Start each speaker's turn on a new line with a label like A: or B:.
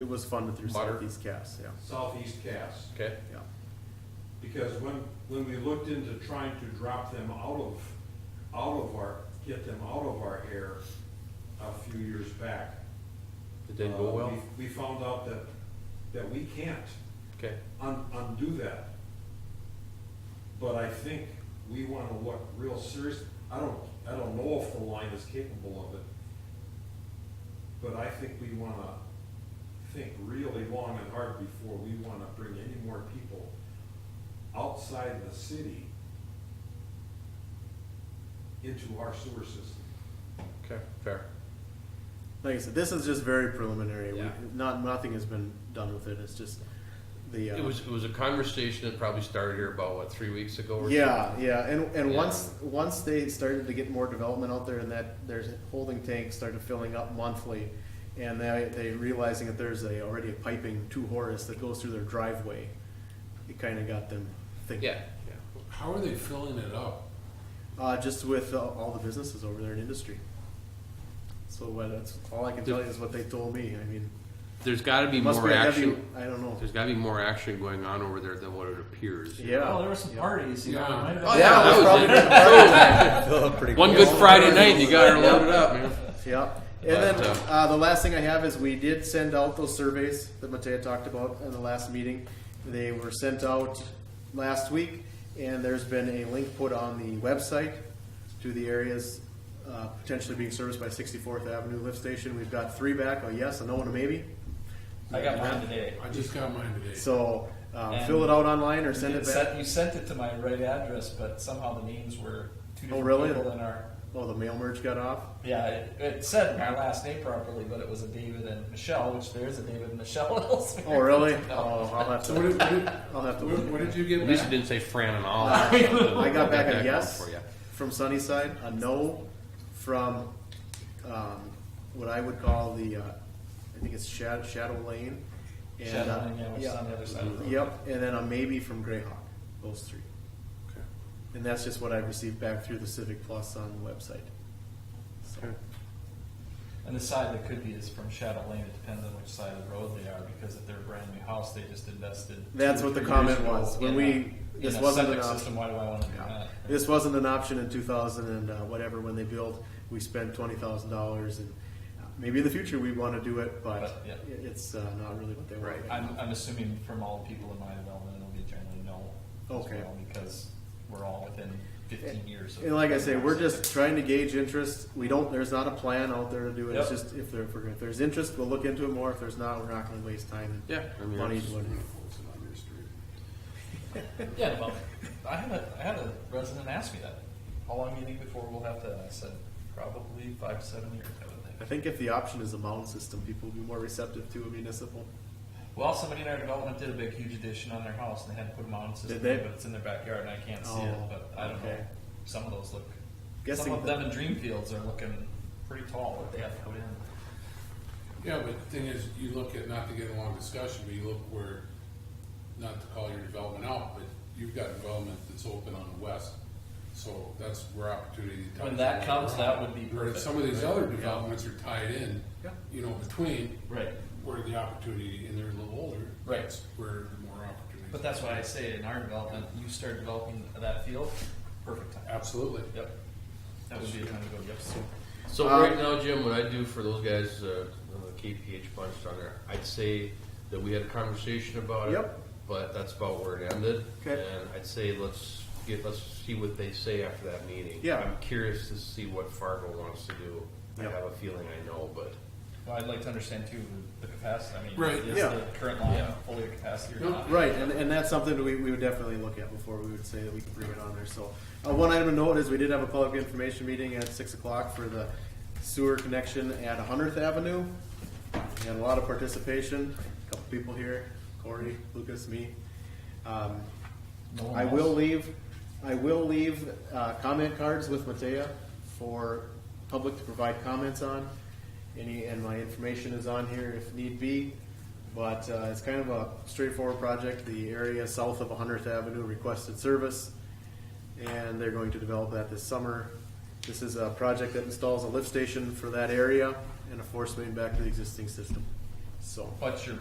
A: It was funded through
B: Butter.
A: Southeast Cast, yeah,
C: Southeast Cast.
B: Okay,
A: yeah.
C: Because when, when we looked into trying to drop them out of, out of our, get them out of our air a few years back.
B: it didn't go
C: uh,
B: well?
C: we- We found out that, that we can't
B: Okay,
C: un- undo that. But I think we wanna look real serious, I don't, I don't know if the line is capable of it. But I think we wanna think really long and hard before we wanna bring any more people outside the city into our sewer system.
B: okay, fair.
A: Like I said, this is just very preliminary. We,
B: Yeah.
A: not nothing has been done with it. It's just the uh,
B: It was, it was a conversation that probably started here about, what, three weeks ago or?
A: yeah, yeah. And and
B: Yeah.
A: once once they started to get more development out there, and that their holding tank started filling up monthly, and they they realizing that there's a already a piping to Horace that goes through their driveway, it kind of got them
B: something?
A: thinking.
B: Yeah, yeah.
D: How are they filling it up?
A: Uh, just with uh, all the businesses over there in industry. So what, that's all I can tell you is what they told me. I mean,
B: There's gotta be
A: must
B: more
A: be a heavy.
B: action,
A: I don't know.
B: there's gotta be more action going on over there than what it appears.
A: Yeah.
E: Well, Oh, there were some
A: Yeah.
E: parties, you know.
D: Yeah.
E: it might have
A: Oh,
E: been-
A: yeah, it
B: that
A: was
B: was
A: probably
B: it.
A: good party.
B: One good Friday night, and you got her loaded up, man.
A: Yeah, and then
B: But, uh,
A: uh, the last thing I have is we did send out those surveys that Matea talked about in the last meeting. They were sent out last week, and there's been a link put on the website to the areas uh, potentially being serviced by 64th Avenue lift station. We've got three back, a yes, a no, and a maybe.
E: I got mine today.
D: I just got mine today.
A: So uh,
E: And
A: fill it out online or send
E: You
A: it
E: sent-
A: back.
E: You sent it to my right address, but somehow the names were two
A: Oh,
E: different
A: really?
E: people in our,
A: Oh, the mail merge got off.
E: yeah, it, it said my last name properly, but it was a David and Michelle, which there is a David and Michelle in Ellsmere.
A: Oh, really?
E: No.
A: Oh, I'll have
D: So what did,
A: to.
D: what did,
A: I'll have to. look
D: what,
A: at
D: what
A: that.
D: did you get
B: At least it
D: back?
B: didn't say Fran and all.
A: I got back a
B: going
A: yes
B: for ya.
A: from Sunnyside, a no from um, what I would call the, uh, I think it's Shadow, Shadow Lane. and,
E: Shadow
A: uh,
E: Lane, yeah, which is on the other side of the road.
A: Yep, and then a maybe from Greyhawk, those three. And that's just what I received back through the Civic Plus on the website. So,
E: And the side that could be is from Shadow Lane, it depends on which side of the road they are, because if they're a brand new house, they just invested. two
A: That's
E: or
A: what the
E: three
A: comment
E: years ago
A: was. When
E: in a-
A: we-
E: in
A: this
E: a
A: wasn't
E: septic
A: an option.
E: system, why do I wanna do
A: yeah.
E: that?
A: This wasn't an option in two thousand and uh, whatever, when they built, we spent twenty thousand dollars and maybe in the future we wanna do it, but
E: But, yeah.
A: it's uh, not really what they want.
B: Right.
E: I'm, I'm assuming from all the people in my development, it'll be generally no. as
A: Okay.
E: well, Because we're all within fifteen years of.
A: And like I say, we're just trying to gauge interest. We don't, there's not a plan out there to do it. It's
E: Yep.
A: just if there, if we're- if there's interest, we'll look into it more. If there's not, we're not gonna waste time
B: Yeah, I
A: and
B: mean,
A: money
B: that's-
A: doing it.
E: Yeah, well, I had a, I had a resident ask me that, how long do you think before we'll have to, I said, probably five, to seven years, I would
A: I
E: think.
A: think if the option is a mound system, people will be more receptive to a municipal.
E: Well, somebody in our development did a big huge addition on their house and they had to put a mountain system,
A: Did they?
E: in, but it's in their backyard and I can't see it,
A: Oh,
E: but I don't know.
A: okay.
E: Some of those look,
A: Guessing
E: some of
A: that-
E: them in Dreamfields are looking pretty tall, what they have to put in.
D: Yeah, but the thing is, you look at, not to get a long discussion, but you look where, not to call your development out, but you've got development that's open on the west. So that's where opportunity. to-
E: When that comes, that would be
D: Where
E: perfect,
D: some of these
E: right?
D: other
E: Yeah.
D: developments are tied in,
A: Yeah.
D: you know, between.
E: Right.
D: Where the opportunity, and they're a little older.
E: Right.
D: that's Where the more opportunity.
E: But that's why I say in our development, you start developing that field, perfect time.
D: Absolutely.
E: Yep. That would be a time to go, yep.
B: So
A: Um,
B: right now, Jim, what I do for those guys, uh, on the KPH bunch down there, I'd say that we had a conversation about it.
A: Yep.
B: But that's about where it ended.
A: Okay.
B: And I'd say let's get, let's see what they say after that meeting.
A: Yeah.
B: I'm curious to see what Fargo wants to do. I
A: Yep.
B: have a feeling I know, but
E: Well, I'd like to understand too, the capacity, I mean,
D: Right,
E: is
A: yeah.
E: the current line
B: Yeah.
E: fully at capacity or
D: Nope.
E: not?
A: Right, and, and that's something we, we would definitely look at before we would say that we can bring it on there, so. Uh, one item to note is we did have a public information meeting at six o'clock for the sewer connection at Hundredth Avenue. We had a lot of participation, a couple people here, Corey, Lucas, me. Um,
E: No one
A: I will
E: else.
A: leave, I will leave, uh, comment cards with Matea for public to provide comments on. Any, and my information is on here if need be, but, uh, it's kind of a straightforward project. The area south of Hundredth Avenue requested service, and they're going to develop that this summer. This is a project that installs a lift station for that area and a force main back to the existing system.
F: so.
D: But your